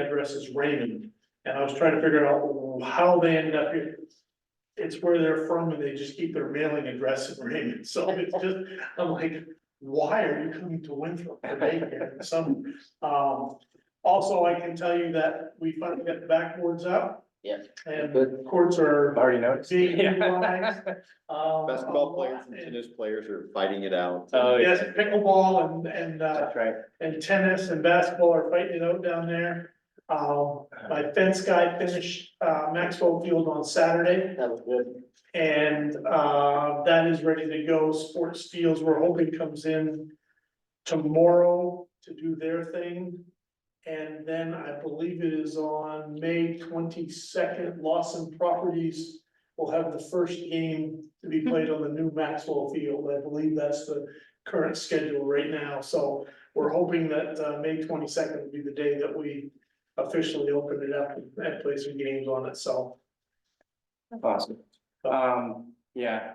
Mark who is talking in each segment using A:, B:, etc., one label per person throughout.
A: address is Raymond, and I was trying to figure out how they ended up here. It's where they're from and they just keep their mailing address in Raymond, so it's just, I'm like, why are you coming to Winthrop for daycare in the summer? Um, also, I can tell you that we finally got the backboards up.
B: Yes.
A: And
C: Good,
A: courts are
C: already noticed.
A: being utilized. um,
D: Basketball players and
A: and-
D: tennis players are fighting it out.
B: Uh,
C: Oh,
A: Yes, pickleball and, and, uh,
C: That's right.
A: and tennis and basketball are fighting it out down there. Um, my fence guy finished, uh, Maxwell Field on Saturday.
B: That was good.
A: And uh, that is ready to go. Sports Fields, we're hoping comes in tomorrow to do their thing. And then I believe it is on May twenty-second, Lawson Properties will have the first game to be played on the new Maxwell Field. I believe that's the current schedule right now. So we're hoping that uh, May twenty-second will be the day that we officially open it up and play some games on it, so.
C: Awesome. Um, yeah,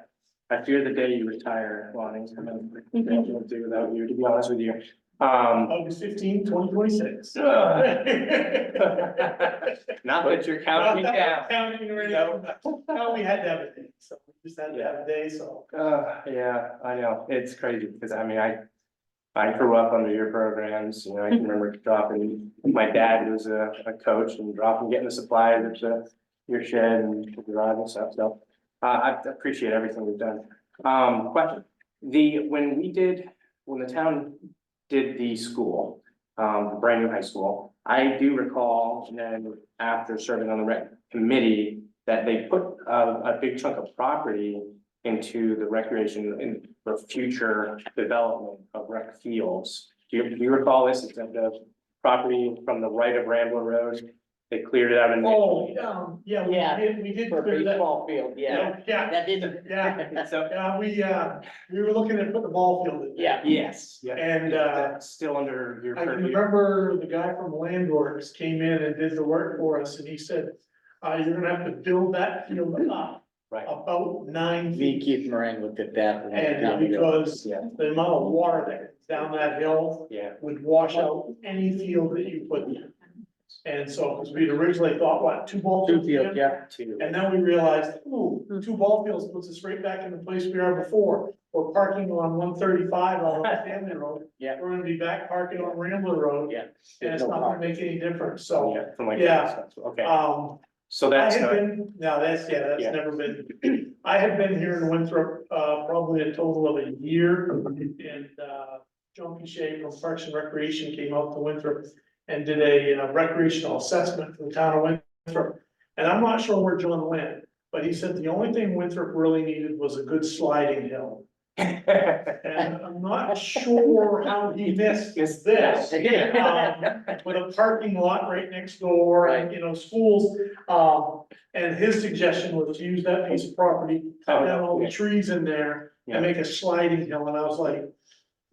C: I fear the day you retire, Lonnie, I'm gonna, I don't do without you, to be honest with you. Um,
A: August 15, 2026.
C: ugh,
A: Not
C: not that you're counting me down.
A: Counting already. No, we had to have a day, so we just had to have a day, so.
C: Uh, yeah, I know, it's crazy, because I mean, I, I grew up under your programs, you know, I can remember dropping, my dad was a, a coach and dropping, getting the supplies at the, your shed and the garage and stuff, so. Uh, I appreciate everything we've done. Um, question, the, when we did, when the town did the school, um, the brand new high school, I do recall then after serving on the rec committee, that they put a, a big chunk of property into the recreation in the future development of rec fields. Do you, do you recall this, it's the property from the right of Rambler Road, they cleared it out and.
A: Oh, um, yeah, we
B: Yeah.
A: did, we did
B: For a
A: clear that.
B: baseball field, yeah.
A: Yeah,
B: That didn't.
A: yeah,
C: So,
A: yeah, we, uh, we were looking at putting the ball field in.
B: Yeah.
C: yes, yeah,
A: And, uh,
C: that's still under your
A: I can
C: purview.
A: remember the guy from Land Works came in and did the work for us, and he said, uh, you're gonna have to build that field up
C: Right.
A: about nine
B: V.
A: feet.
B: Keith Moran looked at that. one
A: And
B: time ago.
A: because
C: Yeah,
A: the amount of water that comes down that hill
C: yeah,
A: would wash out any field that you put in. And so, because we'd originally thought, what, two ball
B: Two
A: fields?
B: field,
A: in?
B: yeah, two.
A: And then we realized, ooh, two ball fields puts us right back in the place we are before. We're parking on one thirty-five on Stanley Road.
B: Yeah.
A: We're gonna be back parking on Rambler Road.
B: Yeah.
A: And it's not gonna make any difference,
C: so,
A: so,
C: yeah, from like.
A: Yeah.
C: Okay,
A: um,
C: so
A: I
C: that's,
A: have
C: not-
A: been, no, that's, yeah,
C: Yeah.
A: that's never been, I have been here in Winthrop, uh, probably a total of a year. And, uh, John Pichet from Parks and Recreation came out to Winthrop and did a uh, recreational assessment for the town of Winthrop. And I'm not sure where John went, but he said the only thing Winthrop really needed was a good sliding hill. And I'm not sure how he missed
C: Missed
A: this.
B: that.
A: um, With a parking lot right next door and, you know, schools, um, and his suggestion was to use that piece of property, cut down all the trees in there
C: Yeah.
A: and make a sliding hill, and I was like,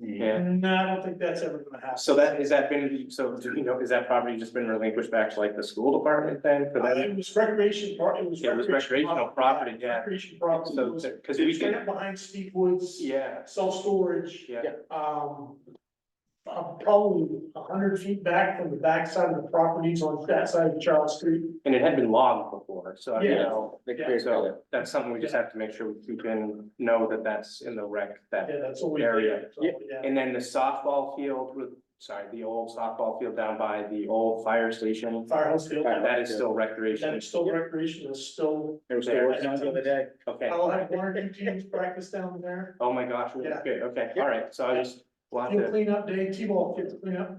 C: yeah,
A: no, I don't think that's ever gonna happen.
C: so that, is that been, so do you know, is that property just been relinquished back to like the school department then for
A: Uh,
C: that?
A: It was recreation part, it was.
C: Yeah, it was recreational property, yeah.
A: Recreation property. It
C: So,
A: was-
C: because we
A: It's
C: did,
A: right behind Steve Woods,
C: yeah,
A: self-storage.
C: yeah.
A: um. uh, Probably a hundred feet back from the backside of the properties on that side of Charles Street.
C: And it had been logged before, so I don't
A: Yeah.
C: know,
B: They
A: Yeah,
B: cleared it.
C: so that's something we just have to make sure we keep in, know that that's in the rec that.
A: Yeah, that's what we
C: Area.
A: did. so, yeah.
C: And then the softball field with, sorry, the old softball field down by the old fire station,
A: Firehouse Field, that
C: that is still recreation.
A: is still recreation, is still,
B: It was the worst one the other day.
C: Okay,
A: I'll have one or two teams practice down there.
C: oh my gosh, we-
A: Yeah.
C: good, okay, all right, so I just wanted
A: Field
C: to,
A: cleanup day, T-ball kids clean up,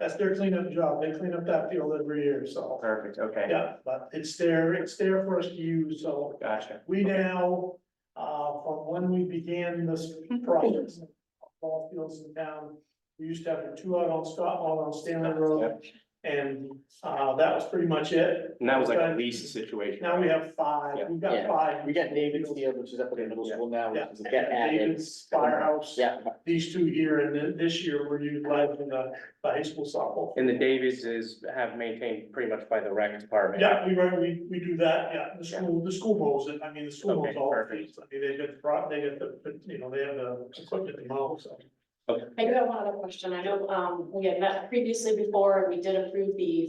A: that's their cleanup job, they clean up that field every year, so.
C: perfect, okay,
A: Yeah, but it's there, it's there for us to use, so.
C: gotcha.
A: We now, uh, from when we began this process, of ball fields in town, we used to have two out on Scott, one on Stanley Road. And, uh, that was pretty much it.
C: And that was like a lease situation.
A: Now we have five,
C: Yeah.
A: we've
B: Yeah.
A: got five.
B: We got David's field, which is up at the middle
C: Yeah.
B: school now,
A: Yeah.
B: which is get added.
A: David's Firehouse,
B: Yeah,
A: these two here, and then this year we're utilizing the, the high school softball.
C: And the Davies is have maintained pretty much by the rec department.
A: Yeah, we run, we, we do that, yeah, the school, the school mows it, I mean, the school mows
C: Okay,
A: all the
C: perfect.
A: fields, I mean, they get the, prop- they get the, you know, they have the equipment to mow, so.
E: I do have one other question. I know, um, we had met previously before and we did approve the